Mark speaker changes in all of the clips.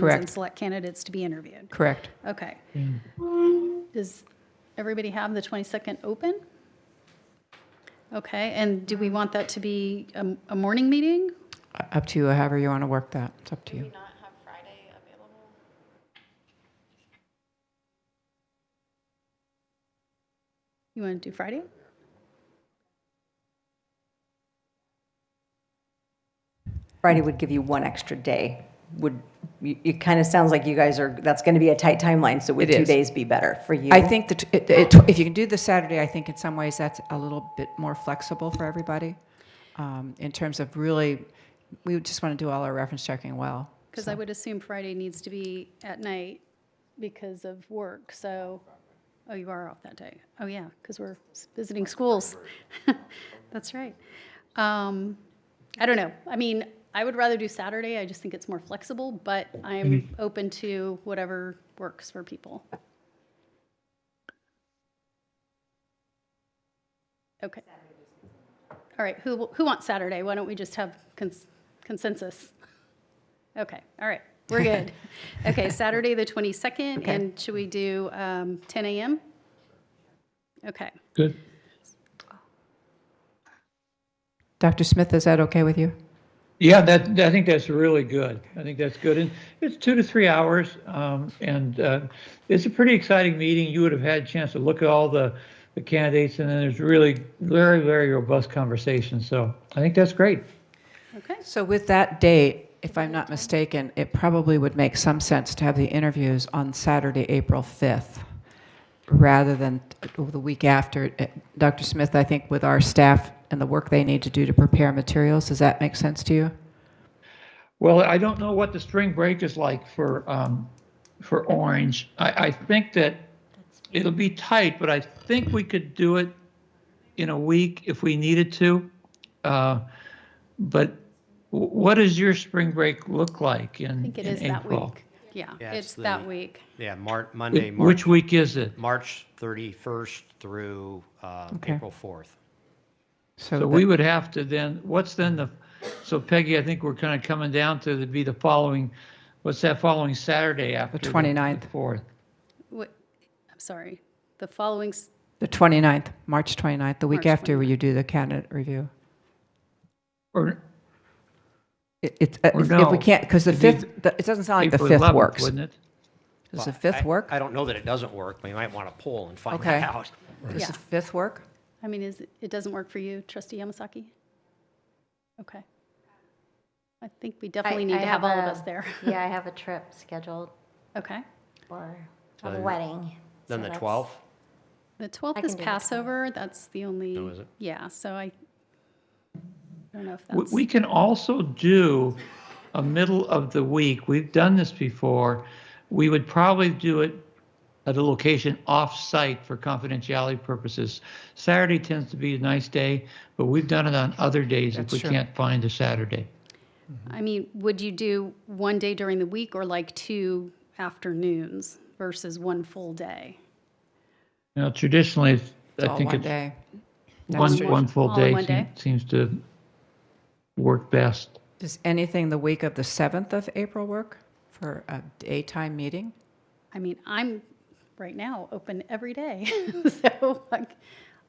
Speaker 1: Correct.
Speaker 2: And select candidates to be interviewed.
Speaker 1: Correct.
Speaker 2: Okay. Does everybody have the 22nd open? Okay, and do we want that to be a, a morning meeting?
Speaker 1: Up to you, however you want to work that. It's up to you.
Speaker 3: not have Friday available?
Speaker 2: You want to do Friday?
Speaker 4: Friday would give you one extra day. Would, you- it kind of sounds like you guys are, that's going to be a tight timeline, so would
Speaker 1: It
Speaker 4: two
Speaker 1: is.
Speaker 4: days be better for you?
Speaker 1: I think that it- it- if you can do the Saturday, I think in some ways that's a little bit more flexible for everybody um, in terms of really, we would just want to do all our reference checking well.
Speaker 2: Because I would assume Friday needs to be at night because of work, so, oh, you are off that day. Oh, yeah, because we're s- visiting schools. That's right. Um, I don't know. I mean, I would rather do Saturday. I just think it's more flexible, but I'm open to whatever works for people. Okay. All right, who, who wants Saturday? Why don't we just have cons- consensus? Okay, all right, we're good. Okay, Saturday, the 22nd, and should we do um, 10 a.m.? Okay,
Speaker 5: Good.
Speaker 1: Dr. Smith, is that okay with you?
Speaker 5: Yeah, that, I think that's really good. I think that's good. And it's two to three hours. Um, and uh, it's a pretty exciting meeting. You would have had a chance to look at all the, the candidates, and then there's really very, very robust conversation. So I think that's great.
Speaker 2: okay,
Speaker 1: So with that date, if I'm not mistaken, it probably would make some sense to have the interviews on Saturday, April 5th, rather than the week after. Uh, Dr. Smith, I think with our staff and the work they need to do to prepare materials, does that make sense to you?
Speaker 5: Well, I don't know what the spring break is like for um, for Orange. I, I think that it'll be tight, but I think we could do it in a week if we needed to. Uh, but w- what does your spring break look like in,
Speaker 2: I think it
Speaker 5: in
Speaker 2: is that
Speaker 5: April?
Speaker 2: week. Yeah,
Speaker 6: Yeah, it's
Speaker 2: it's that
Speaker 6: the-
Speaker 2: week.
Speaker 6: Yeah, Mar- Monday,
Speaker 5: Which
Speaker 6: March,
Speaker 5: week is it?
Speaker 6: March 31st through uh,
Speaker 1: Okay.
Speaker 6: April 4th.
Speaker 5: So we would have to then, what's then the, so Peggy, I think we're kind of coming down to the, be the following, what's that following Saturday after?
Speaker 1: 29th.
Speaker 5: 4th.
Speaker 2: What- I'm sorry, the following, s-
Speaker 1: The 29th, March 29th, the week
Speaker 2: March
Speaker 1: after where you do the candidate review.
Speaker 5: Or,
Speaker 1: It- It's, uh,
Speaker 5: Or
Speaker 1: if if
Speaker 5: no,
Speaker 1: we can't, because the
Speaker 5: it'd be
Speaker 1: 5th, the- it doesn't sound like the
Speaker 5: April
Speaker 1: 5th
Speaker 5: 11th,
Speaker 1: works.
Speaker 5: Wouldn't it?
Speaker 1: Does the
Speaker 6: Well,
Speaker 1: 5th
Speaker 6: I-
Speaker 1: work?
Speaker 6: I don't know that it doesn't work. We might want to poll and find
Speaker 1: Okay.
Speaker 6: that out.
Speaker 1: Does
Speaker 2: Yeah.
Speaker 1: the 5th work?
Speaker 2: I mean, is, it- it doesn't work for you, trustee Yamasaki? Okay. I think we definitely need to have all of
Speaker 3: a-
Speaker 2: us there.
Speaker 3: Yeah, I have a trip scheduled
Speaker 2: Okay.
Speaker 3: for a
Speaker 6: So-
Speaker 3: wedding.
Speaker 6: Then the
Speaker 3: so that's-
Speaker 6: 12th?
Speaker 2: The 12th
Speaker 3: can
Speaker 2: is
Speaker 3: do the 12th.
Speaker 2: Passover, that's the only.
Speaker 6: Oh, is it?
Speaker 2: Yeah, so I I don't know if
Speaker 5: We-
Speaker 2: that's.
Speaker 5: We can also do a middle of the week. We've done this before. We would probably do it at a location off-site for confidentiality purposes. Saturday tends to be a nice day, but we've done it on other days if
Speaker 1: That's
Speaker 5: we
Speaker 1: true.
Speaker 5: can't find a Saturday.
Speaker 2: I mean, would you do one day during the week or like two afternoons versus one full day?
Speaker 5: You know, traditionally, it's-
Speaker 1: It's
Speaker 5: I
Speaker 1: all
Speaker 5: think
Speaker 1: one
Speaker 5: it's
Speaker 1: day.
Speaker 5: one,
Speaker 1: That's
Speaker 5: one
Speaker 1: true.
Speaker 5: full
Speaker 2: All in
Speaker 5: day
Speaker 2: one day?
Speaker 5: seem- seems to work best.
Speaker 1: Does anything the week of the 7th of April work for a daytime meeting?
Speaker 2: I mean, I'm right now open every day. So like,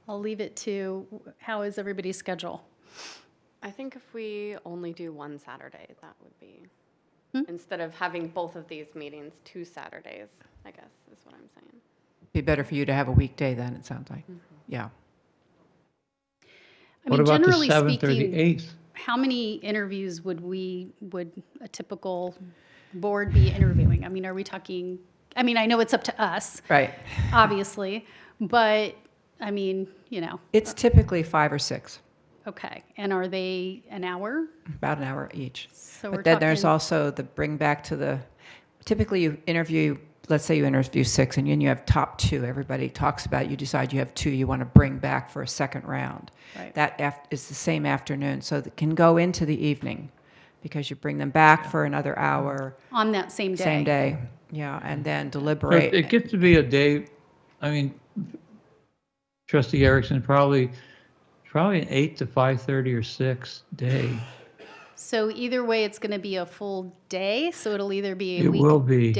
Speaker 2: I'll leave it to how is everybody's schedule?
Speaker 7: I think if we only do one Saturday, that would be, instead of having both of these meetings, two Saturdays, I guess, is what I'm saying.
Speaker 1: Be better for you to have a weekday then, it sounds
Speaker 2: Mm-hmm.
Speaker 1: like. Yeah.
Speaker 2: I mean,
Speaker 5: What about the
Speaker 2: generally
Speaker 5: 7th or the
Speaker 2: speaking,
Speaker 5: 8th?
Speaker 2: how many interviews would we, would a typical board be interviewing? I mean, are we talking, I mean, I know it's up to us,
Speaker 1: Right.
Speaker 2: obviously, but I mean, you know,
Speaker 1: It's typically five or six,
Speaker 2: okay. And are they an hour?
Speaker 1: about an hour each.
Speaker 2: So we're
Speaker 1: But then there's
Speaker 2: talking-
Speaker 1: also the bring back to the, typically you interview, let's say you interview six and then you have top two, everybody talks about, it, you decide you have two you want to bring back for a second round.
Speaker 2: Right.
Speaker 1: That af- is the same afternoon, so that can go into the evening because you bring them back for another hour,
Speaker 2: On that same day?
Speaker 1: same day, yeah, and then
Speaker 5: So it- It
Speaker 1: deliberate.
Speaker 5: gets to be a day, I mean, trustee Erickson, probably, probably an eight to five thirty or six day.
Speaker 2: So either way, it's going to be a full day, so it'll either be a
Speaker 5: It will be.
Speaker 2: weekday